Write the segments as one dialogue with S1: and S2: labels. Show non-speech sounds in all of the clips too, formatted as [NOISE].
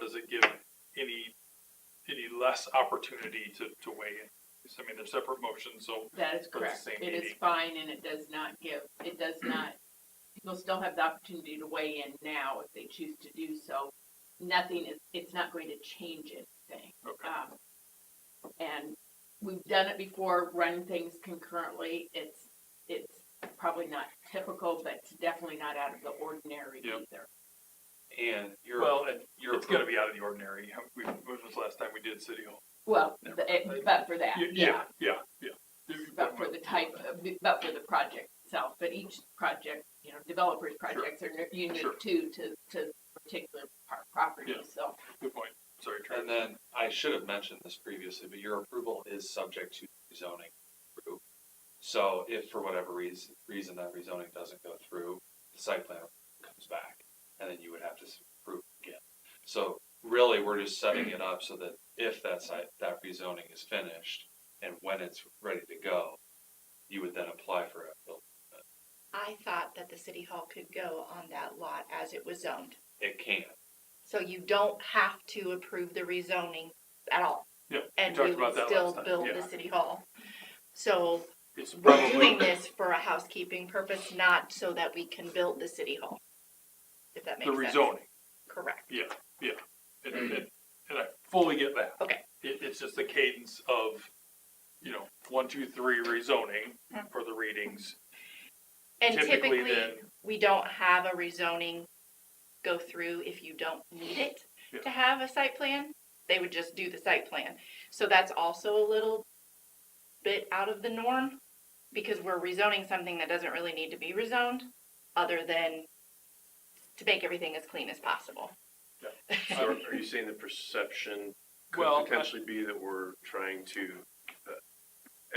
S1: does it give any, any less opportunity to, to weigh in? I mean, they're separate motions, so
S2: That is
S1: the
S2: correct.
S1: same
S2: It is
S1: meeting.
S2: fine and it does not give,
S1: [CLEARS THROAT]
S2: it does not, people still have the opportunity to weigh in now if they choose to do so. Nothing is, it's not going to change anything.
S1: Okay.
S2: Um, and we've done it before, run things concurrently. It's, it's probably not typical, but it's definitely not out of the ordinary
S1: Yep.
S2: either.
S3: And you're,
S1: Well, it-
S3: you're,
S1: it's gonna be out of the ordinary. We- When was the last time we did city hall?
S2: Well,
S1: Never
S2: the- it- but for that,
S1: Y-
S2: yeah.
S1: Yeah, yeah. yeah.
S2: but for the type, of- but for the project itself, but each project, you know, developers' projects are nu-
S1: Sure.
S2: unique too, to, to particular par- property,
S1: Yeah.
S2: so.
S1: Good point. Sorry, Travis.
S3: and then I should have mentioned this previously, but your approval is subject to rezoning through. So if for whatever reason, reason that rezoning doesn't go through, the site plan comes back and then you would have to s- approve again. So really, we're just setting it up so that if that site, that rezoning is finished and when it's ready to go, you would then apply for it.
S4: I thought that the city hall could go on that lot as it was zoned.
S3: It can.
S4: So you don't have to approve the rezoning at all.
S1: Yeah, we
S4: And
S1: talked
S4: we
S1: about
S4: would
S1: that
S4: still
S1: last time,
S4: build
S1: yeah.
S4: the city hall. So
S1: It's
S4: we're doing
S1: probably, the
S4: this for a housekeeping purpose, not so that we can build the city hall. If that makes sense.
S1: rezoning,
S4: Correct.
S1: yeah, yeah. And, and, and I fully get that.
S4: Okay.
S1: It, it's just the cadence of, you know, one, two, three rezoning for the readings.
S4: Mm-hmm. And
S1: Typically
S4: typically,
S1: then-
S4: we don't have a rezoning go through if you don't need it
S1: Yeah.
S4: to have a site plan. They would just do the site plan. So that's also a little bit out of the norm because we're rezoning something that doesn't really need to be rezoned other than to make everything as clean as possible.
S5: So are you saying the perception
S1: Well, I-
S5: could potentially be that we're trying to uh,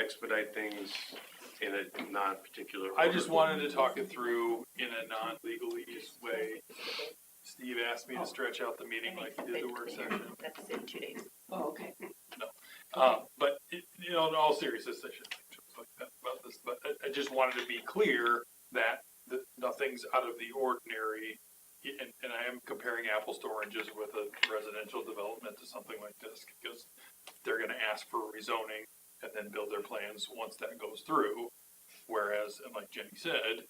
S5: expedite things in a non-particular order?
S1: I just wanted to talk it through in a non-legalese way. Steve asked me to stretch out the meeting
S4: I
S1: like
S4: think
S1: he did the
S4: they've
S1: work
S4: cleaned-
S1: session.
S4: That's in two days.
S2: Oh, okay.
S1: Um, but, it- you know, in all seriousness, I shouldn't say jokes like that about this, but I, I just wanted to be clear that, that nothing's out of the ordinary. And, and I am comparing apples to oranges with a residential development to something like this, because they're gonna ask for rezoning and then build their plans once that goes through. Whereas, and like Jenny said,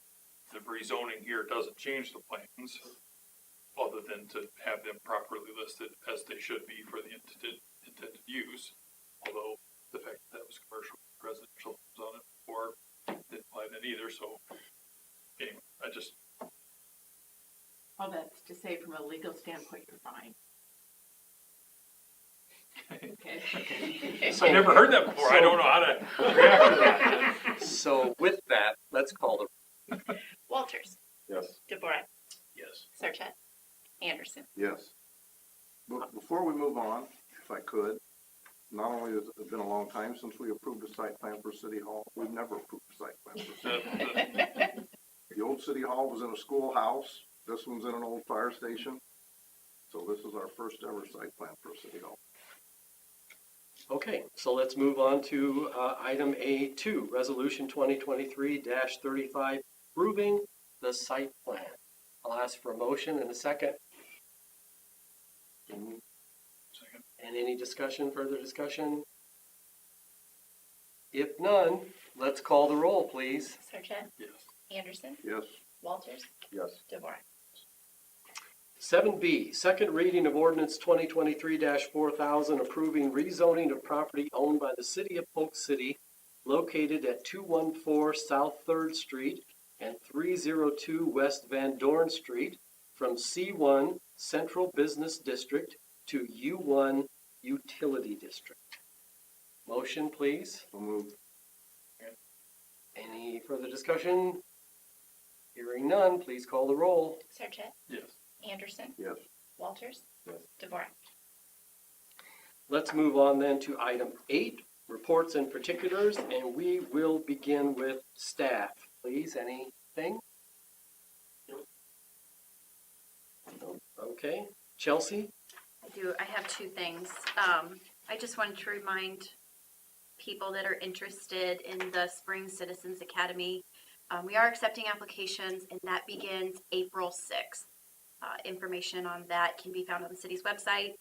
S1: the rezoning here doesn't change the plans, other than to have them properly listed as they should be for the intended, intended use although the fact that that was commercial, residential was on it before, didn't apply then either, so. Anyway, I just,
S2: All that's to say, from a legal standpoint, you're
S1: [LAUGHS]
S2: fine. Okay.
S1: I've never heard that before, I don't know how to react to that.
S6: So with that, let's call the,
S4: [LAUGHS] Walters,
S5: Yes.
S4: DeBorak,
S5: Yes.
S4: Sarchet, Anderson.
S7: Yes. But before we move on, if I could, not only has it been a long time since we approved a site plan for City Hall, we've never approved a site plan for City.
S1: The-
S7: The old City Hall was in a schoolhouse, this one's in an old fire station. So this is our first ever site plan for City Hall.
S6: okay, so let's move on to uh, item A2, Resolution 2023-35, approving the site plan. I'll ask for a motion and a second,
S1: the-
S6: and any discussion, further discussion? If none, let's call the roll, please.
S4: Sarchet,
S1: Yes,
S4: Anderson,
S7: Yes?
S4: Walters,
S7: Yes.
S4: DeBorak.
S6: 7B, second reading of ordinance 2023-4000, approving rezoning of property owned by the city of Polk City located at 214 South Third Street and 302 West Van Dorn Street from C1 Central Business District to U1 Utility District. Motion, please.
S7: So moved.
S6: Any further discussion? Hearing none, please call the roll.
S4: Sarchet,
S1: yes.
S4: Anderson,
S7: Yes.
S4: Walters,
S7: Yes.
S4: DeVore.
S6: Let's move on then to item eight, reports and particulars, and we will begin with staff. Please, anything? No? Okay, Chelsea?
S8: I do, I have two things. Um, I just wanted to remind people that are interested in the Spring Citizens Academy. Um, we are accepting applications and that begins April sixth. Uh, information on that can be found on the city's website